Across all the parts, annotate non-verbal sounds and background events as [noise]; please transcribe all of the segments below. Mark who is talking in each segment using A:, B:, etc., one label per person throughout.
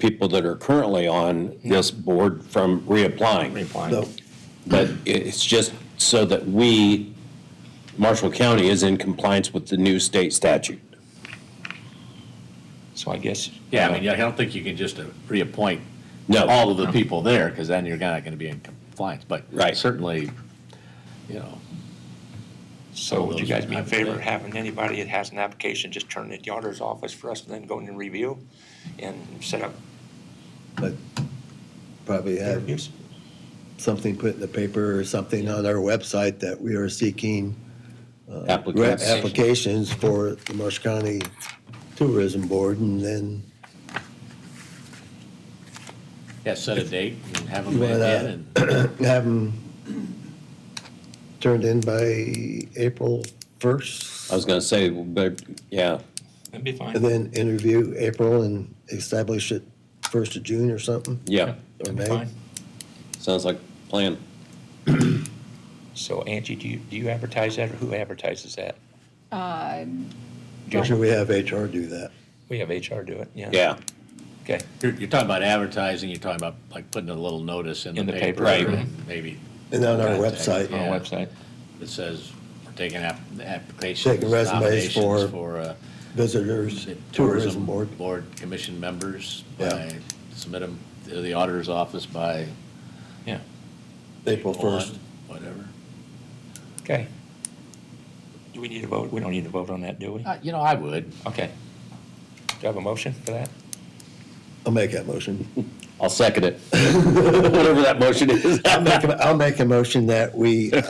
A: people that are currently on this board from reapplying.
B: No.
A: But i- it's just so that we, Marshall County is in compliance with the new state statute.
C: So I guess.
D: Yeah, I mean, I don't think you can just uh, reappoint
A: No,
D: all of the people there, because then you're not going to be in compliance, but
A: Right.
D: certainly, you know,
C: So would you guys be in
D: Those-
C: favor of having anybody that has an application just turn it to the auditor's office for us and then go in and review and set up
B: But probably have
C: interviews?
B: something put in the paper or something on our website that we are seeking re-
A: applicants.
B: applications for the Marsh County Tourism Board and then [clears throat]
D: yeah, set a date and have them
B: You wanna- uh,
D: in and.
B: have them turned in by April 1st.
A: I was gonna say, but, yeah,
C: That'd be
B: And
C: fine.
B: then interview April and establish it 1st of June or something,
A: yeah,
B: or
C: That'd be
B: May.
C: fine.
A: sounds like a plan.
C: So Angie, do you, do you advertise that or who advertises that?
B: Usually we have HR do that.
C: We have HR do it, yeah.
A: Yeah,
C: Okay,
D: You're, you're talking about advertising, you're talking about like putting a little notice in the paper.
C: right.
D: and Maybe
B: And on our
D: Contact.
B: website.
C: on
D: Yeah.
C: our website.
D: it says, we're taking app, applications.
B: Taking resumes
D: nominations
B: for-
D: For, uh,
B: Visitors,
D: the
B: Tourism Board.
D: Board commission members,
B: Yeah.
D: by, submit them to the auditor's office by.
C: Yeah,
B: April 1st.
D: one, Whatever.
C: okay. Do we need a vote? We don't need to vote on that, do we?
D: Uh, You know, I would.
C: Okay. Do you have a motion for that?
B: I'll make that motion.
A: I'll second it, [laughs] whatever that motion is.
B: I'll make, a- I'll make a motion
C: [laughs]
B: that we, uh,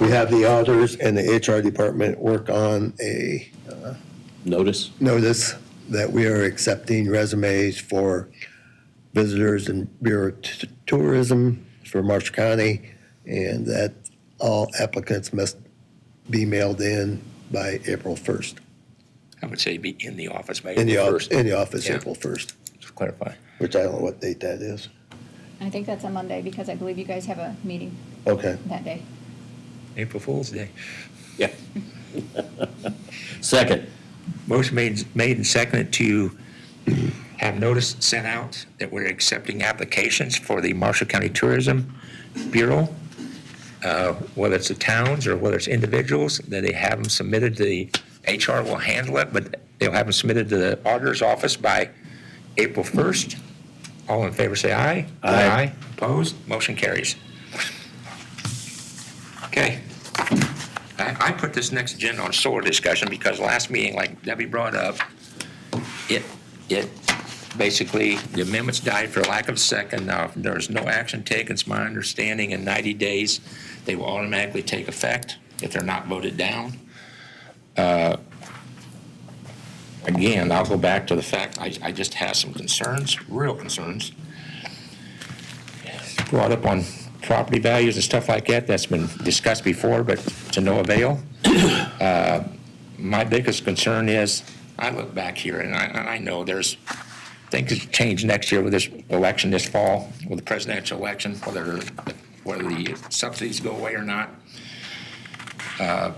B: we have the auditors and the HR department work on a
A: Notice,
B: notice that we are accepting resumes for visitors and Bureau of T- Tourism for Marsh County, and that all applicants must be mailed in by April 1st.
C: I would say be in the office by
B: In the,
C: April
B: off-
C: first.
B: in the office,
C: Yeah.
B: April 1st,
C: Just clarify.
B: which I don't know what date that is.
E: I think that's a Monday because I believe you guys have a meeting
B: Okay.
E: that day.
C: April Fool's Day.
A: yeah. [laughs] Second,
C: Motion made, made and seconded to have notice sent out that we're accepting applications for the Marshall County Tourism Bureau, uh, whether it's the towns or whether it's individuals, that they have them submitted to the, HR will handle it, but they'll have them submitted to the auditor's office by April 1st. All in favor, say aye.
A: Aye.
C: Opposed? Motion carries. Okay. I, I put this next agenda on solar discussion because last meeting, like Debbie brought up, it, it, basically, the amendments died for lack of a second. Now, if there's no action taken, it's my understanding in 90 days, they will automatically take effect if they're not voted down. Uh, Again, I'll go back to the fact, I, I just have some concerns, real concerns. Brought up on property values and stuff like that, that's been discussed before, but to no avail Uh, my biggest concern is, I look back here and I, and I know there's, things could change next year with this election this fall, with the presidential election, whether, whether the subsidies go away or not. Uh,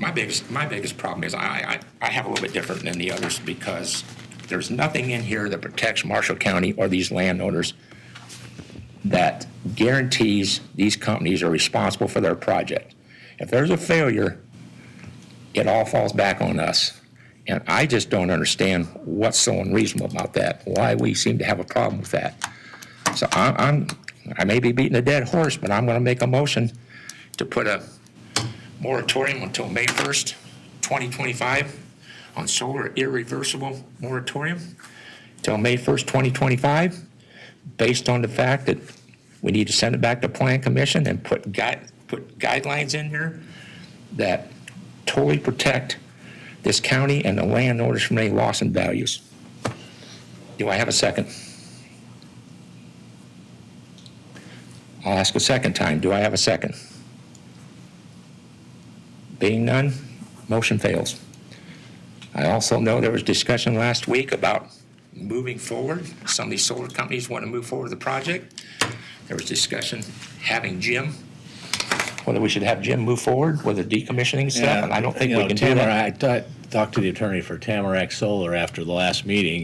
C: My biggest, my biggest problem is I, I, I have a little bit different than the others because there's nothing in here that protects Marshall County or these landowners that guarantees these companies are responsible for their project. If there's a failure, it all falls back on us. And I just don't understand what's so unreasonable about that, why we seem to have a problem with that. So I- I'm, I may be beating a dead horse, but I'm going to make a motion to put a moratorium until May 1st, 2025, on solar irreversible moratorium till May 1st, 2025, based on the fact that we need to send it back to Plan Commission and put guide, put guidelines in there that totally protect this county and the landowners from any loss in values. Do I have a second? I'll ask a second time. Do I have a second? Being none, motion fails. I also know there was discussion last week about moving forward. Some of these solar companies want to move forward with the project. There was discussion having Jim whether we should have Jim move forward with the decommissioning stuff, and I don't think
D: You
C: we
D: know,
C: can do that.
D: Tamarack- I ta- talked to the attorney for Tamarack Solar after the last meeting,